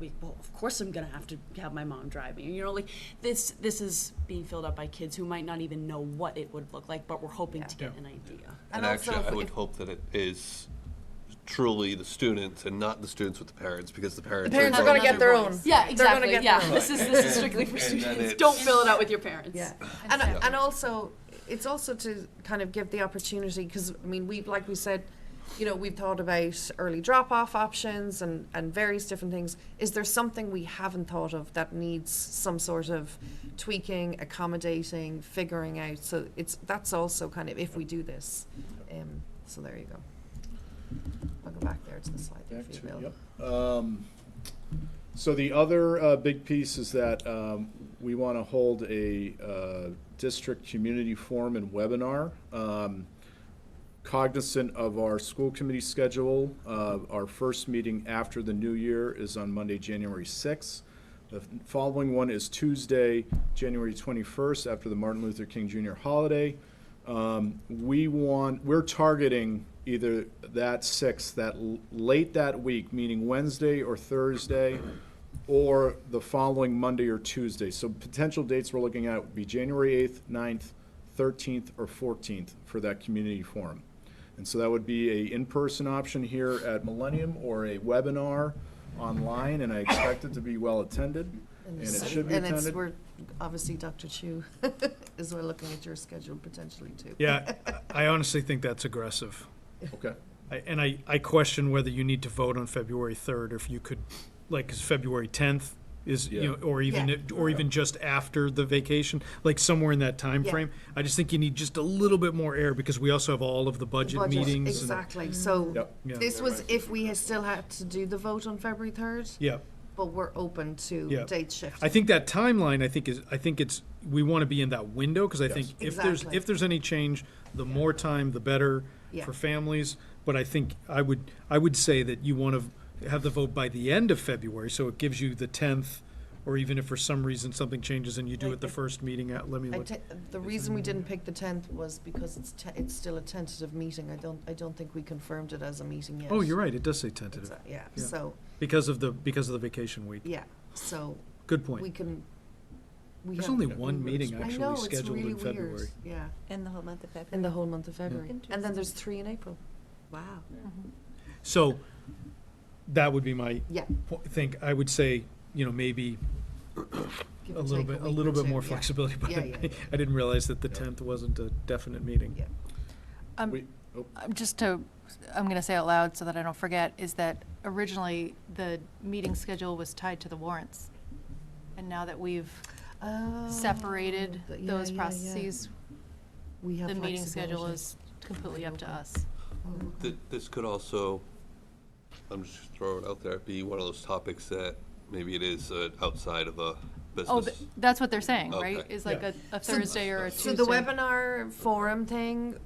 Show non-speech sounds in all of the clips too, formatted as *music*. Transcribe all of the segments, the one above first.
we, well, of course I'm gonna have to have my mom drive me. You know, like this this is being filled up by kids who might not even know what it would look like, but we're hoping to get Yeah. an idea. And And also actually, if I we- would hope that it is truly the students and not the students with the parents, because the parents. parents are going- gonna get their own. Yeah, They're gonna exactly. get Yeah, their own. this is this is strictly for And then students. it's- Don't fill it out with your parents. Yeah, And and, so- and also, it's also to kind of give the opportunity, because, I mean, we, like we said, you know, we've thought about early drop-off options and, and various different things. Is there something we haven't thought of that needs some sort of tweaking, accommodating, figuring out? So it's, that's also kind of, if we do this, um, so there you go. I'll go back there to the slide there Back if you to- will. yep. Um, So the other uh, big piece is that um, we want to hold a uh, district community forum and webinar. um, Cognizant of our school committee schedule, uh, our first meeting after the new year is on Monday, January 6th. The following one is Tuesday, January 21st, after the Martin Luther King Jr. holiday. Um, we want, we're targeting either that sixth, that l- late that week, meaning Wednesday or Thursday, or the following Monday or Tuesday. So potential dates we're looking at would be January eighth, 9th, thirteenth, or fourteenth for that community forum. And so that would be a in-person option here at Millennium or a webinar online, and I expect it to be well-attended, and it so- should be and attended. it's, we're, obviously, Dr. Chu *laughs* is we're looking at your schedule potentially too. Yeah, I honestly think that's aggressive. Okay, I- And I, I question whether you need to vote on February 3rd, or if you could, like, is February 10th is, you Yeah. know, or even, Yeah. it- or even just after the vacation, like somewhere in that time Yeah. frame. I just think you need just a little bit more air, because we also have all of the budget Budget, meetings. and- Exactly, so Yep. Yeah. this was if we had still had to do the vote on February third, Yeah, but we're open to Yeah. date shift. I think that timeline, I think is, I think it's, we want to be in that window, because I think if there's, Exactly. if there's any change, the more time, the better Yeah. for families. But I think, I would, I would say that you want to have the vote by the end of February, so it gives you the tenth, or even if for some reason something changes and you do it the first meeting, at- let me I look. ta- The reason we didn't pick the tenth was because it's, te- it's still a tentative meeting, I don't, I don't think we confirmed it as a meeting yet. Oh, you're right, it does say It's tentative, a- Yeah, Yeah. so, because of the, because of the vacation week. yeah, so Good we point. can, we have. There's only one Yeah. meeting I actually scheduled in February. Yeah, In the whole month of February. in the whole month of February, and then Interesting. there's three in April, Wow. So, that would be my yeah. po- think, I would say, you know, maybe give A or little take bit, a week or little bit two, more yeah. flexibility, *laughs* but Yeah, yeah, I I didn't realize that the Yeah. 10th wasn't a definite meeting. Yeah. we, oh, Um, Just to, I'm going to say out loud so that I don't forget, is that originally the meeting schedule was tied to the warrants. And now that we've Um, Oh, separated th- yeah, those yeah, yeah. processes, We have the meeting schedule flexibility. is completely up to open. us. Th- This could also, I'm just throwing it out there, be one of those topics that maybe it is uh, outside of a Oh, business. th- that's what they're saying, right? Okay. Is like Yeah. a a Thursday or a Tuesday. So the webinar forum thing,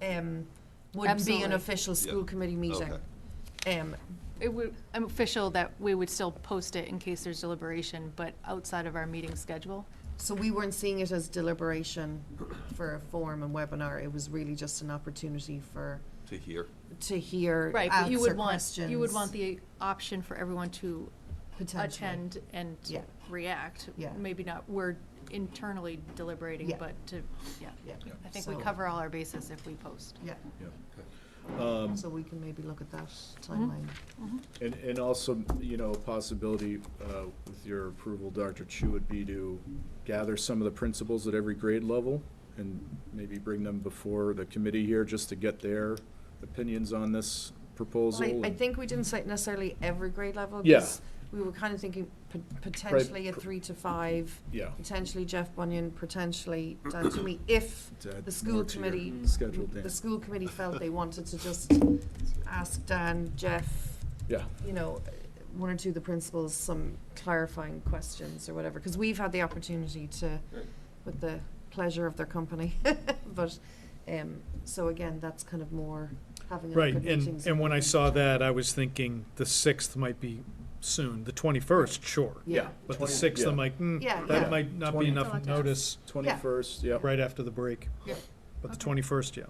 um, would be an Absolutely. official school Yeah. committee meeting. Um, It would, I'm official that we would still post it in case there's deliberation, but outside of our meeting schedule. so we weren't seeing it as deliberation for a forum and webinar, it was really just an opportunity for, To hear. to hear, Right, but you answer would want, questions. you would want the option for everyone to potentially. attend and Yeah. react. Yeah. Maybe not, we're internally deliberating, Yeah. but to, yeah. Yeah. Yeah. I think we So- cover all our bases if we post. Yeah, um, so we can maybe look at that timeline. And, and also, you know, a possibility, uh, with your approval, Dr. Chu, would be to gather some of the principals at every grade level and maybe bring them before the committee here just to get their opinions on this proposal. Well, I, I and- think we didn't say necessarily every grade level. 'cause Yeah. We were kind of thinking pot- potentially a three to five, Yeah. potentially Jeff Bunyan, potentially Dan Toomey, if to add the school more to your committee, Schedule, Dan. the school committee felt they wanted to just ask Dan, Jeff, Yeah, you know, one or two of the principals some clarifying questions or whatever, because we've had the opportunity to, with the pleasure of their company, *laughs* but, um, so again, that's kind of more having a look Right, at and, meetings. and when I saw that, I was thinking the 6th might be soon, the 21st, sure. Yeah. But the Twenty- 6th, I'm yeah. like, hmm, Yeah, yeah. that might not Twenty- be That's a lot enough to ask. notice twenty-first, yep. right after the break. Yeah. But the Okay. 21st, yeah.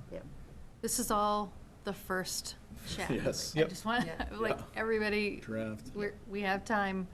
This is all the first check. Yes. *laughs* I Yep. just want, Yeah. *laughs* like, everybody, Draft. we're, we have time.